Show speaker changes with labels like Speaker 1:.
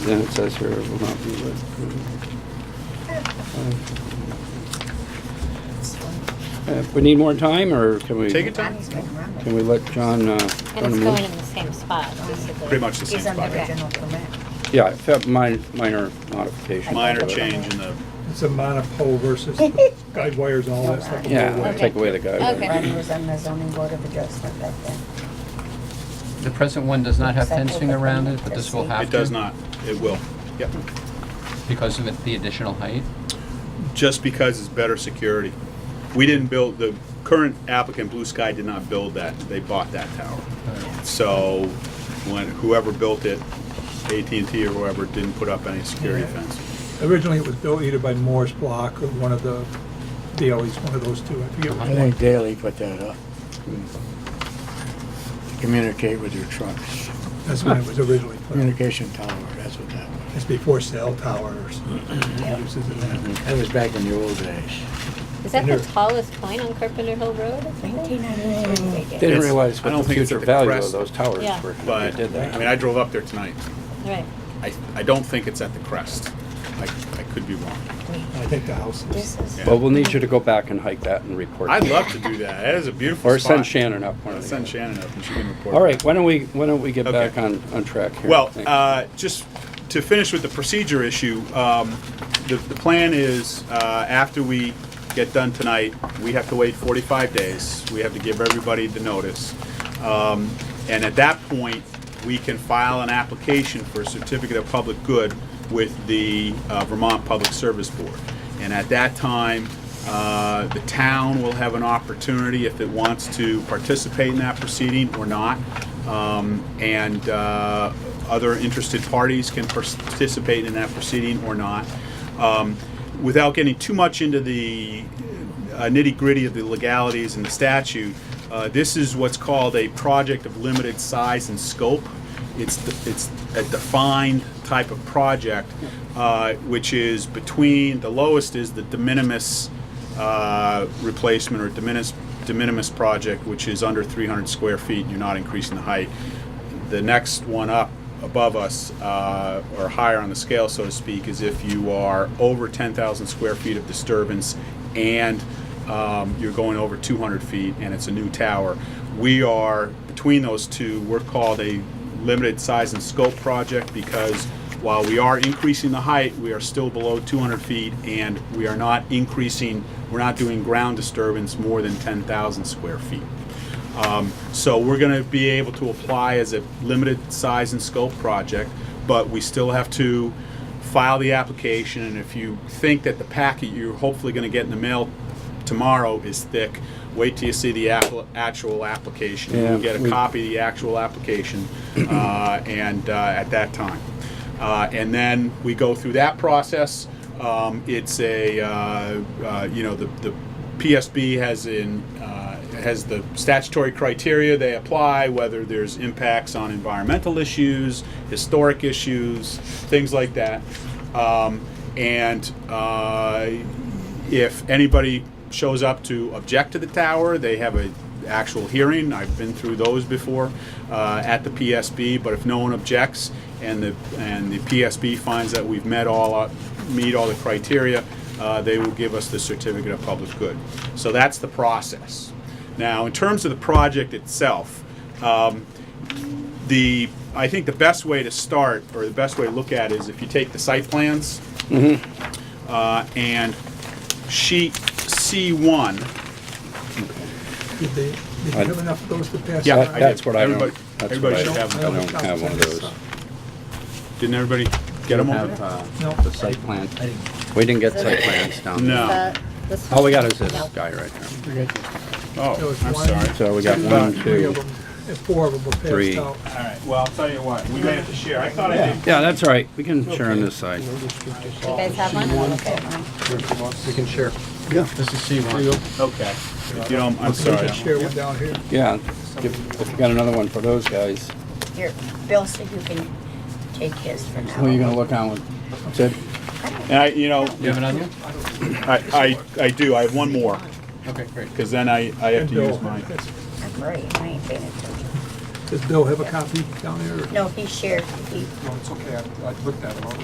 Speaker 1: Then it says here, it will not be lit. Uh, We need more time, or can we?
Speaker 2: Take your time.
Speaker 3: Johnny's gonna remember.
Speaker 1: Can we let John? uh,
Speaker 4: And
Speaker 1: run
Speaker 4: it's
Speaker 1: a
Speaker 4: going
Speaker 1: move?
Speaker 4: in the same spot, basically.
Speaker 2: Pretty much the same
Speaker 3: He's on
Speaker 2: spot,
Speaker 3: the
Speaker 2: right?
Speaker 3: original permit.
Speaker 1: Yeah, except minor, minor modification.
Speaker 2: Minor change in the,
Speaker 5: It's a monopole versus the guide wires and all that stuff.
Speaker 1: Yeah, we'll
Speaker 4: Okay.
Speaker 1: take away the guy.
Speaker 4: Okay.
Speaker 3: Ronnie was on the zoning board of adjustment back then.
Speaker 6: The present one does not have fencing around it, but this will have to.
Speaker 2: it does not, it will. Yep.
Speaker 6: Because of it- the additional height?
Speaker 2: Just because it's better security. We didn't build, the current applicant, Blue Sky, did not build that. They bought that tower. So when, whoever built it, AT&T or whoever, didn't put up any security
Speaker 5: Yeah.
Speaker 2: fence.
Speaker 5: Originally, it was built either by Morris Block or one of the Daley's, one of those two. I forget
Speaker 7: I
Speaker 5: which one.
Speaker 7: think Daley put that up. To Communicate with your trucks.
Speaker 5: That's when it was originally put. up.
Speaker 7: Communication tower, that's what that was.
Speaker 5: It's before cell towers. uses of that.
Speaker 7: That was back in the old days.
Speaker 4: Is that the
Speaker 5: Here.
Speaker 4: tallest point on Carpenter Hill Road? I think?
Speaker 2: It's-
Speaker 1: Didn't realize
Speaker 2: I don't
Speaker 1: what the
Speaker 2: think it's
Speaker 1: future
Speaker 2: at the
Speaker 1: value of
Speaker 2: crest,
Speaker 1: those towers
Speaker 4: Yeah.
Speaker 1: were. when they
Speaker 2: But,
Speaker 1: did that.
Speaker 2: I mean, I drove up there tonight.
Speaker 4: Right.
Speaker 2: I, I don't think it's at the crest. I, I could be wrong.
Speaker 5: I think the house is.
Speaker 3: This is.
Speaker 2: Yeah.
Speaker 1: Well, we'll need you to go back and hike that and report.
Speaker 2: I'd love to do that. That is a beautiful
Speaker 1: Or
Speaker 2: spot.
Speaker 1: send Shannon up. one of the
Speaker 2: Let's send
Speaker 1: other.
Speaker 2: Shannon up and she can report.
Speaker 1: All right, why don't we, why don't we get
Speaker 2: Okay.
Speaker 1: back on, on track here?
Speaker 2: Well,
Speaker 1: Thanks.
Speaker 2: uh, just to finish with the procedure issue, um, the, the plan is, uh, after we get done tonight, we have to wait forty-five days. We have to give everybody the notice. Um, and at that point, we can file an application for a certificate of public good with the uh, Vermont Public Service Board. And at that time, uh, the town will have an opportunity, if it wants to participate in that proceeding or not. Um, And uh, other interested parties can participate in that proceeding or not. Um, Without getting too much into the nitty gritty of the legalities and the statute, uh, this is what's called a project of limited size and scope. It's, de- it's a defined type of project, uh, which is between, the lowest is the de minimis uh, replacement or de minimis, de minimis project, which is under 300 square feet, and you're not increasing the height. The next one up above us, uh, or higher on the scale, so to speak, is if you are over 10,000 square feet of disturbance and um, you're going over 200 feet and it's a new tower. We are, between those two, we're called a limited size and scope project because while we are increasing the height, we are still below 200 feet and we are not increasing, we're not doing ground disturbance more than 10,000 square feet. Um, So we're going to be able to apply as a limited size and scope project, but we still have to file the application. And if you think that the packet you're hopefully going to get in the mail tomorrow is thick, wait till you see the app- actual application.
Speaker 1: Yeah,
Speaker 2: You get
Speaker 1: we-
Speaker 2: a copy of the actual application uh, and uh, at that time. Uh, And then we go through that process. Um, It's a, uh, uh, you know, the the PSB has in, uh, has the statutory criteria they apply, whether there's impacts on environmental issues, historic issues, things like that. Um, And uh, if anybody shows up to object to the tower, they have a actual hearing. I've been through those before uh, at the PSB. But if no one objects and the and the PSB finds that we've met all our, meet all the criteria, uh, they will give us the certificate of public good. So that's the process. Now, in terms of the project itself, um, the I think the best way to start or the best way to look at it is if you take the site plans uh, and sheet C1.
Speaker 5: Did they, did you have enough of those to pass?
Speaker 2: Yeah,
Speaker 5: out?
Speaker 1: That- That's what I don't,
Speaker 2: Everybody-
Speaker 1: that's what
Speaker 2: everybody
Speaker 1: I
Speaker 2: should have
Speaker 1: I
Speaker 2: them.
Speaker 1: don't have one of those.
Speaker 2: Didn't everybody get them over there?
Speaker 5: No.
Speaker 1: uh, The site plan. We didn't get site plans down. there.
Speaker 2: No.
Speaker 4: Uh, this
Speaker 1: All we
Speaker 4: one.
Speaker 1: got is this
Speaker 4: No.
Speaker 1: guy right there.
Speaker 5: There
Speaker 2: Oh,
Speaker 5: was
Speaker 2: I'm
Speaker 5: one,
Speaker 2: sorry.
Speaker 1: So we got
Speaker 5: two,
Speaker 1: one,
Speaker 5: three
Speaker 1: two.
Speaker 5: of them, and Four of them were
Speaker 1: three.
Speaker 5: passed out.
Speaker 2: All right, well, I'll tell you what, we may have to share. I thought I did.
Speaker 1: Yeah, that's all right. We can share on this side.
Speaker 4: You guys have one? Okay.
Speaker 7: We can share. Yeah. This is C1.
Speaker 2: Okay. If you don't, I'm sorry.
Speaker 5: Share one down here.
Speaker 1: Yeah, if if you got another one for those guys.
Speaker 3: Here, Bill said you can take his for now.
Speaker 1: Who are you gonna look on with? Sid?
Speaker 2: And I, you know,
Speaker 6: Do you have another one?
Speaker 2: I, I, I do, I have one more,
Speaker 6: Okay, great.
Speaker 2: because then I, I have
Speaker 5: And
Speaker 2: to
Speaker 5: Bill.
Speaker 2: use mine.
Speaker 5: That's-
Speaker 3: I'm worried, I ain't paying attention.
Speaker 8: Does Bill have a copy down there? or-
Speaker 9: No, he shared, he
Speaker 5: No, it's okay, I I looked at it already.